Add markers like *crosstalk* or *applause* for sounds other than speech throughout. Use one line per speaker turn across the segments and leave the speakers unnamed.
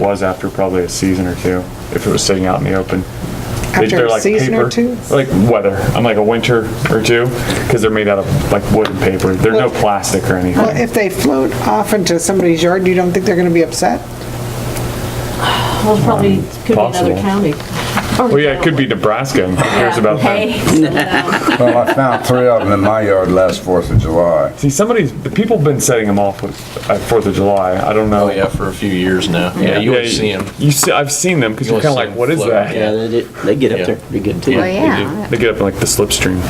was after probably a season or two, if it was sitting out in the open. They-
After
they're
a
like
season or
paper-
two?
Like weather, I'm like a winter or two, because they're made out of like wood and paper. They're no plastic or
Well,
anything.
if they float off into somebody's yard, you don't think they're gonna be upset?
Well, it's probably, could be another
possible.
county.
Oh,
Well, yeah, it could be Nebraska. Who cares about that?
that.
Well, I found three of them in my yard last Fourth of July.
See, somebody's, the people have been setting them off with, at Fourth of July. I don't know.
Oh yeah, for a few years now. Yeah, you always see them.
You see, I've seen them because
You
you're kind of
always see
like,
'em
what is
float,
that?
Yeah, they, did- they get up there pretty good too.
Yeah.
Oh, yeah.
They get up in like the slipstream.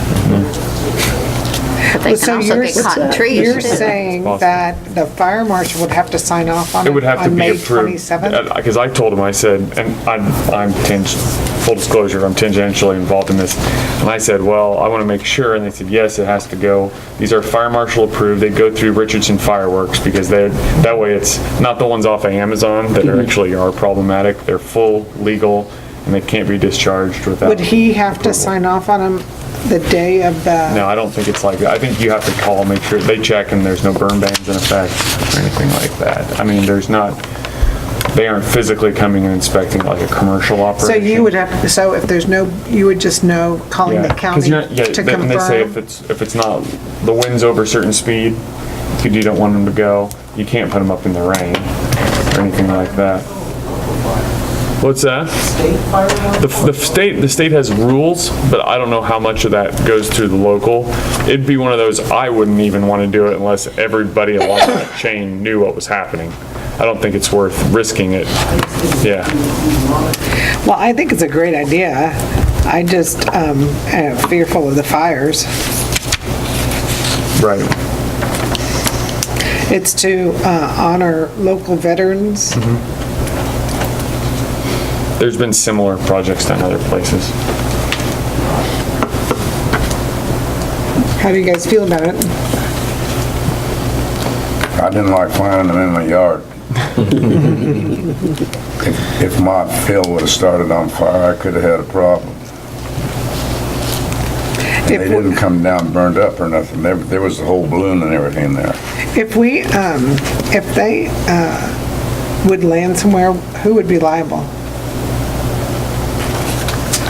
But they
So
can also
you're
get
s-
caught in trees.
You're
too.
saying
possible.
that the fire marshal would have to sign off on
It would
it
have to
on
be
May
approved.
27th?
Because I told him, I said, and I'm, I'm ting, full disclosure, I'm tangentially involved in this. And I said, well, I want to make sure, and they said, yes, it has to go. These are fire marshal approved, they go through Richardson Fireworks because they're, that way it's not the ones off of Amazon that
Mm-hmm.
are actually are problematic. They're full, legal, and they can't be discharged without.
Would he have to sign off on them the day of the,
No, I don't think it's like that. I think you have to call, make sure they check and there's no burn bans in effect or anything like that. I mean, there's not, they aren't physically coming and inspecting like a commercial operation.
so you would have, so if there's no, you would just know, calling the
Yeah, 'cause
county
you're- yeah,
to
they- And they say if
confirm?
it's, if it's not, the wind's over a certain speed, you you don't want them to go, you can't put them up in the rain or anything like that. What's that? The, f- the state, the state has rules, but I don't know how much of that goes through the local. It'd be one of those, I wouldn't even want to do it unless everybody along *laughs* that chain knew what was happening. I don't think it's worth risking it. Yeah.
Well, I think it's a great idea. I just um, am fearful of the fires.
Right.
It's to uh, honor local veterans.
Mm-hmm. There's been similar projects done other places.
How do you guys feel about it?
I didn't like finding them in my yard. If- If my field would've started on fire, I could've had a problem. And they
If we-
didn't come down burned up or nothing. There, there was a whole balloon and everything there.
If we, um, if they, uh, would land somewhere, who would be liable?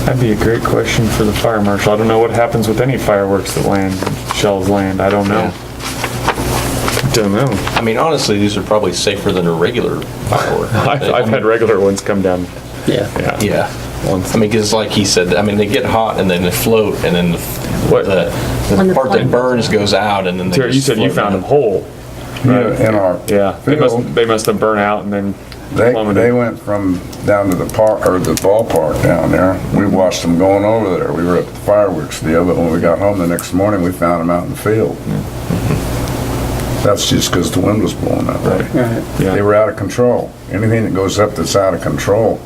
That'd be a great question for the fire marshal. I don't know what happens with any fireworks that land, shells land. I don't know. Don't know.
I mean, honestly, these are probably safer than a regular firework.
*laughs* I've, I've had regular ones come down.
Yeah.
Yeah.
Yeah.
Once.
I mean, because like he said, I mean, they get hot and then they float and then the,
What-
the,
When
the
the
part
flame-
that burns goes out and then they
Terry, you
just
said you
float
found them
down.
whole.
You know, In our
Yeah. They must,
field,
they must have burnt out and then
they, they
plummeted.
went from down to the park, or the ballpark down there. We watched them going over there. We were at the fireworks deal, but when we got home the next morning, we found them out in the field. That's just 'cause the wind was blowing that way. They
Mm-hmm. Yeah.
were out of control. Anything that goes up that's out of control.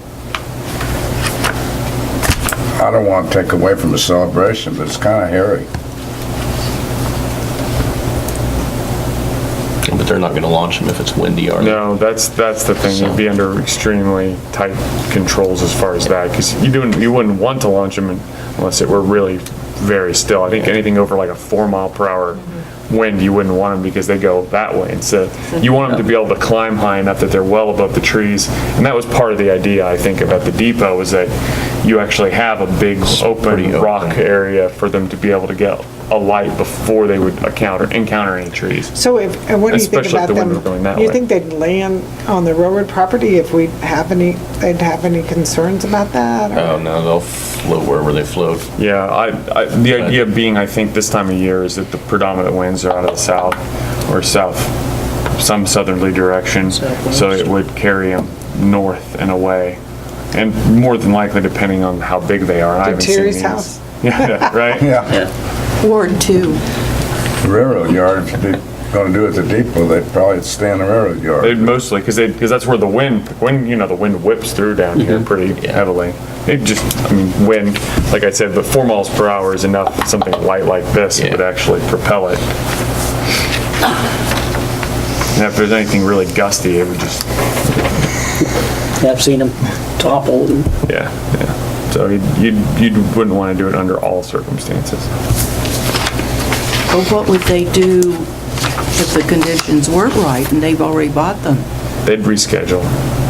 I don't want to take away from the celebration, but it's kind of hairy.
But they're not going to launch them if it's windy, are they?
No, that's, that's the thing. You'd be under extremely tight controls as far as that. Cause you do not you wouldn't want to launch them unless it were really very still. I think anything over like a four mile per hour wind, you wouldn't want them because they go that way. And so you want them to be able to climb high enough that they're well above the trees. And that was part of the idea, I think, about the depot was that you actually have a big open
pretty open.
rock area for them to be able to get a light before they would encounter, encounter any trees.
So if, and what do you think
Especially if
about
the wind
them?
were going that
You
way.
think they'd land on the railroad property if we have any, they'd have any concerns about that? or-
Oh, no, they'll float wherever they float.
Yeah, I, I, the idea being, I think this time of year is that the predominant winds are out of the south or south, some southerly direction. So it would carry them north and away. And more than likely, depending on how big they are. I
To
haven't seen
Terry's
these.
house.
*laughs* Yeah, right?
Yeah.
Ward two.
The railroad yard, if you're going to do it at the depot, they'd probably stay in the railroad
They'd
yard.
mostly, because they, because that's where the wind, when, you know, the wind whips through down here pretty heavily. It just, I mean, wind, like I said, but four miles per hour is enough, something light like this
Yeah.
would actually propel it. And if there's anything really gusty, it would just,
I've seen them topple and
yeah, yeah. So you, you wouldn't want to do it under all circumstances.
*laughs* But what would they do if the conditions weren't right and they've already bought them?
They'd reschedule.